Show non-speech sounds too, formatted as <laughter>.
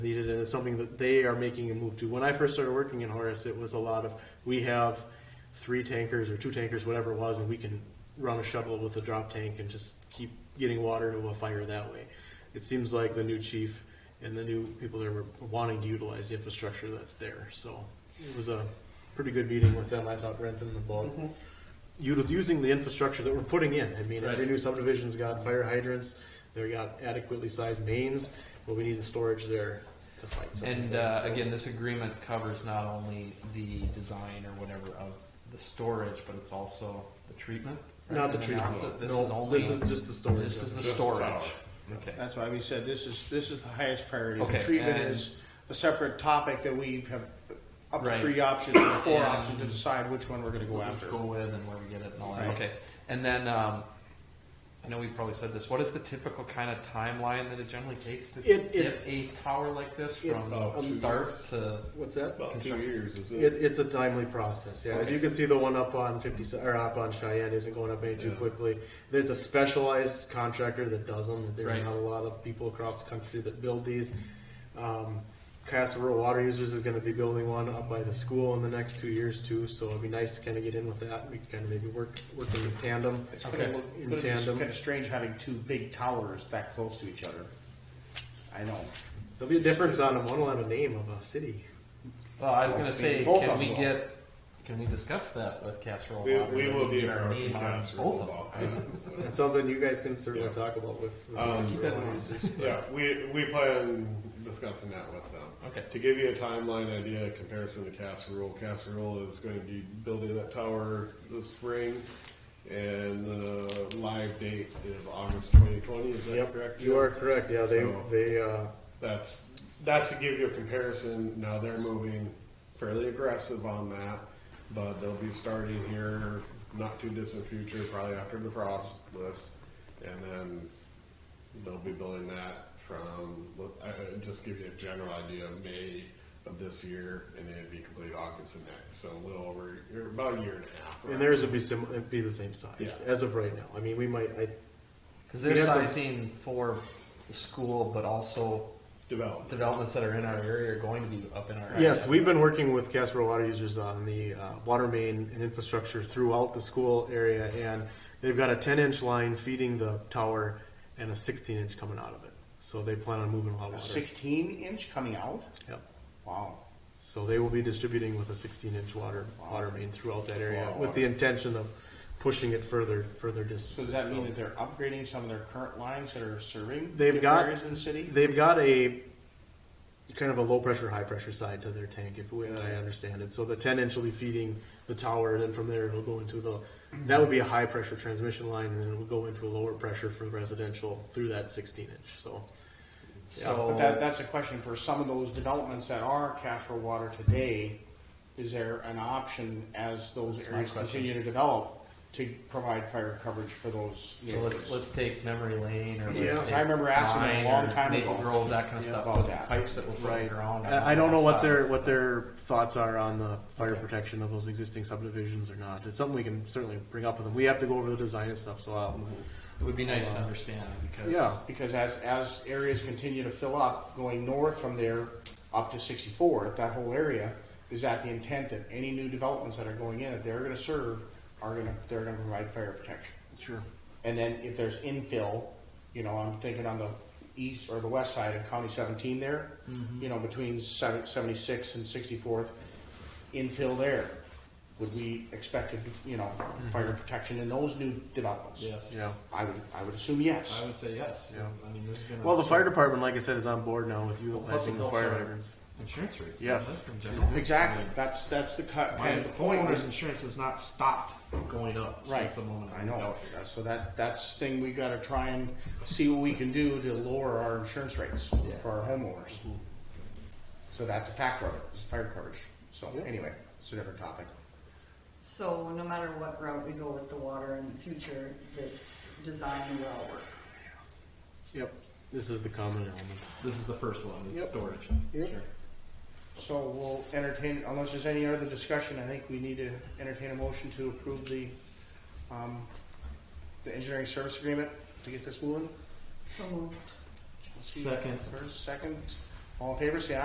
needed, and it's something that they are making a move to. When I first started working in Horace, it was a lot of, we have three tankers or two tankers, whatever it was, and we can run a shuttle with a drop tank and just keep getting water to a fire that way. It seems like the new chief and the new people there were wanting to utilize the infrastructure that's there, so it was a pretty good meeting with them, I thought, Renton and Bog. Util using the infrastructure that we're putting in, I mean, every Right. new subdivision's got fire hydrants, they got adequately sized mains, but we need the storage there to fight such a thing. And uh, so. again, this agreement covers not only the design or whatever of the storage, but it's also the treatment. right? Not the And treatment, also- This no, is only. this is just the storage This is of the it. Just the tower. storage. Okay. That's why we said this is, this is the highest priority. The Okay, Treatment and- is a separate topic that we have up to Right. three options, or four And- options to decide which one we're gonna go What to after. Go with and where we get it and all that. Right. Okay. And then, um, I know we probably said this, what is the typical kind of timeline that it generally takes to It- it- get a tower like this It- from Oh, start to? What's that? About two years, is It, it? it's a timely process, yeah. As you can see, the one up on fifty, or up on Cheyenne isn't going up any too Yeah. quickly. There's a specialized contractor that does them. There's Right. not a lot of people across the country that build these. Um, Castle Rural Water Users is gonna be building one up by the school in the next two years too, so it'd be nice to kinda get in with that. We can kinda maybe work, work in tandem. It's kind of, In tandem. kind of strange having two big towers that close to each other. I know. There'll be a difference on them. One will have a name of a city. Well, I was gonna say, Both can of we them. get, can we discuss that with casserole? We, Water? we will Maybe be our our name on casserole both of them. about that. so. <laughs> That's something you guys can certainly Yeah. talk about with. with Um, Castle Keep that in Rural mind. Users. Yeah, we, we plan discussing that with them. Okay. To give you a timeline idea, comparison to Casserole, Casserole is going to be building that tower this spring. And the live date is August twenty twenty, is that Yep, correct? you Jim? are correct. Yeah, they, So- they, uh, That's, that's to give you a comparison. Now they're moving fairly aggressive on that, but they'll be starting here not too distant future, probably after the frost lifts. And then they'll be building that from, I- I- just give you a general idea, May of this year, and then it'd be complete August of next. So a little over, or about a year and a half. And theirs would be sim, it'd be the same size Yeah. as of right now. I mean, we might, I, Because We they're had some- sizing for the school, but also Developed. developments that are in our area are going to be up in our area. yes, we've been working with Casper Water Users on the, uh, water main and infrastructure throughout the school area. And they've got a ten inch line feeding the tower and a sixteen inch coming out of it. So they plan on moving a lot of A water. sixteen inch coming out? Yep. Wow. So they will be distributing with a sixteen inch water, water main throughout that That's a lot area of with water. the intention of pushing it further, further So distances. does that So- mean that they're upgrading some of their current lines that are serving? They've different got- Areas in the city? They've got a kind of a low pressure, high pressure side to their tank, if the way that I understand it. So the ten inch will be feeding the tower, and then from there it'll go into the. That would be a high pressure transmission line, and then it would go into a lower pressure for residential through that sixteen inch. So So But that, that's a question for some of those developments that are Castro Water today. Is there an option as those That's my areas question. continue to develop to provide fire coverage for those? so let's neighborhoods? let's take memory lane or let's Yeah. take I remember asking them a Vine long or time Maple ago Grove, that kind of Yeah, stuff about with that. pipes that were put in the ground. on I, I don't know what their sides. what their thoughts are on the fire Okay. protection of those existing subdivisions or not. It's something we can certainly bring up with them. We have to go over the design and stuff. So I'll, It would be nice to understand because Uh, Yeah. Because as, as areas continue to fill up, going north from there up to sixty-four, that whole area, is that the intent that any new developments that are going in, that they're gonna serve, are gonna, they're gonna provide fire protection? sure. And then if there's infill, you know, I'm thinking on the east or the west side of County 17 there, Mm-hmm. you know, between seven- 76 and 64th, infill there. Would we expect, a, you know, fire protection in those new developments? Mm-hmm. yes, Yeah. I would, I would assume yes. I would say yes. Yeah. I mean, this is gonna Well, the fire department, like I said, is on board now with utilizing the those fire are- hydrants. insurance rates. Yes. isn't it, from general? Exactly. That's, that's the cut, My kind of the point. homeowner's insurance has not stopped going up Right. since the moment I know. Uh, So that, that's the thing we gotta try and see what we can do to lower our insurance rates Yeah. for our homeowners. So that's a factor of it, is fire coverage. So anyway, it's a different topic. So no matter what route we go with the water in the future, this design will work. Yep. This is the common element. This is the first one. Is Yep. storage. Yep. Sure. So we'll entertain, unless there's any other discussion, I think we need to entertain a motion to approve the, um, the engineering service agreement to get this moving. So moved. Let's see. Second. First, second, All in favor, say